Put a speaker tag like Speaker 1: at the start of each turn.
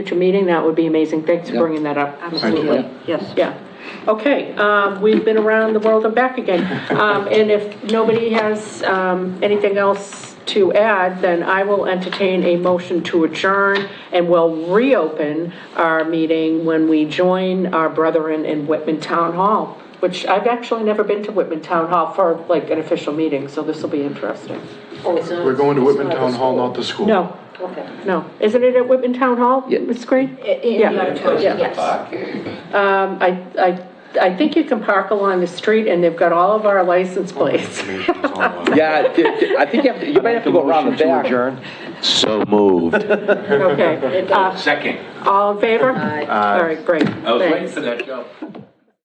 Speaker 1: future meeting, that would be amazing. Thanks for
Speaker 2: Yep.
Speaker 1: bringing that up.
Speaker 2: Absolutely.
Speaker 3: Yes.
Speaker 1: Yeah. Okay, um, we've been around the world and back again. Um, And if nobody has um, anything else to add, then I will entertain a motion to adjourn, and we'll reopen our meeting when we join our brethren in Whitman Town Hall, which I've actually never been to Whitman Town Hall for like an official meeting, so this will be interesting.
Speaker 4: We're going to Whitman Town Hall, not the school.
Speaker 1: No,
Speaker 3: Okay.
Speaker 1: no. Isn't it at Whitman Town Hall,
Speaker 2: Yeah.
Speaker 1: Ms. Green?
Speaker 3: In the
Speaker 1: Yeah.
Speaker 3: auditorium, yes.
Speaker 1: Um, I, I, I think you can park along the street, and they've got all of our license plates.
Speaker 2: Yeah, d- d- I think you have to, you might have to go around the back.
Speaker 5: So moved.
Speaker 1: Okay. Uh,
Speaker 6: Second.
Speaker 1: All in favor? All right, great.
Speaker 6: I was
Speaker 1: Thanks.
Speaker 6: waiting for that, Joe.